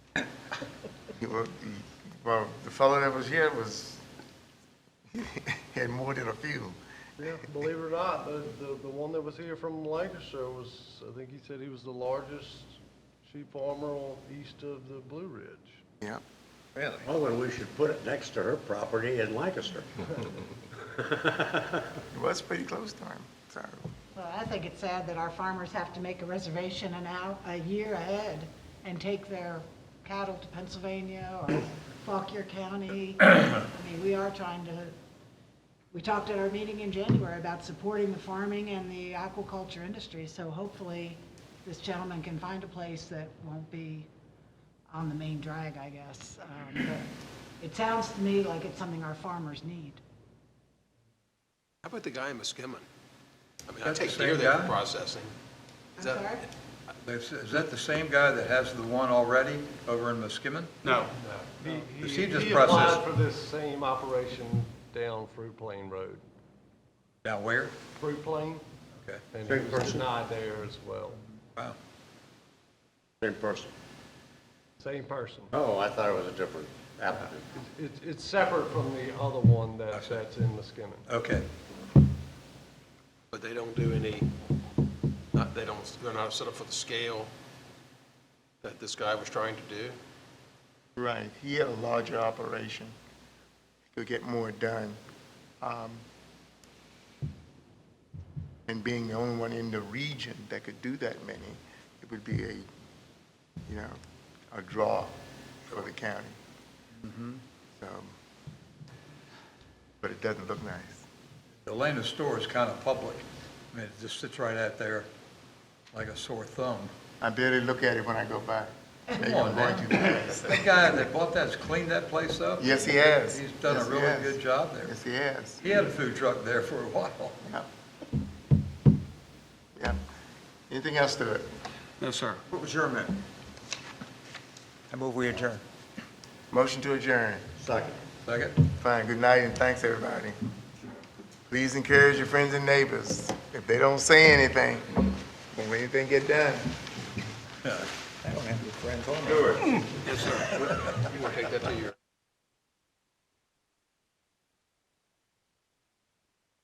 You were- you- Well, the fellow that was here was, had more than a few. Yeah, believe it or not, the, the, the one that was here from Lancaster was, I think he said he was the largest sheep farmer on, east of the Blue Ridge. Yeah. Really? Well, then Oh, we should put it next to her property in Lancaster. It was pretty close to him, so. Well, I think it's sad that our farmers have to make a reservation an hour, a year ahead and take their cattle to Pennsylvania or Fauquier County. I mean, we are trying to, we talked at our meeting in January about supporting the farming and the aquaculture industry. So hopefully this gentleman can find a place that won't be on the main drag, I guess. Um, but It sounds to me like it's something our farmers need. How about the guy in Muskemon? I mean, I That's the take deer same there for guy? processing. I'm Is that- sorry? Is is that the same guy that has the one already over in Muskemon? No. He- The He, seed just he applied processed. for this same operation down Fruit Plain Road, Down where? Fruit Plain, Okay, and Same he was person. denied there as well. wow. Same person. Same person. Oh, I thought it was a different applicant. It's, it's separate from the other one I that, see. that's in Muskemon. Okay, But they don't do any, not, they don't, they're not set up for the scale that this guy was trying to do. Right, he had a larger operation, could get more done. Um, And being the only one in the region that could do that many, it would be a, you know, a draw for the county. So, but it doesn't look nice. the Lana store is kind of public. I mean, it just sits right out there like a sore thumb. I barely look at it when I go by. Maybe Come on, I'm going too man. fast. That guy that bought that's cleaned that place up? Yes, he has. He's done Yes, a he really has. good job there. Yes, he has. He had a food truck there for a while. Yeah. Yeah. Anything else to it? No, sir. What was your amendment? I move we adjourn. Motion to adjourn. Second. Second? Fine, good night and thanks, everybody. Please encourage your friends and neighbors. If they don't say anything, when anything get done. I don't have any friends on Yes, sir. You want to take that to your.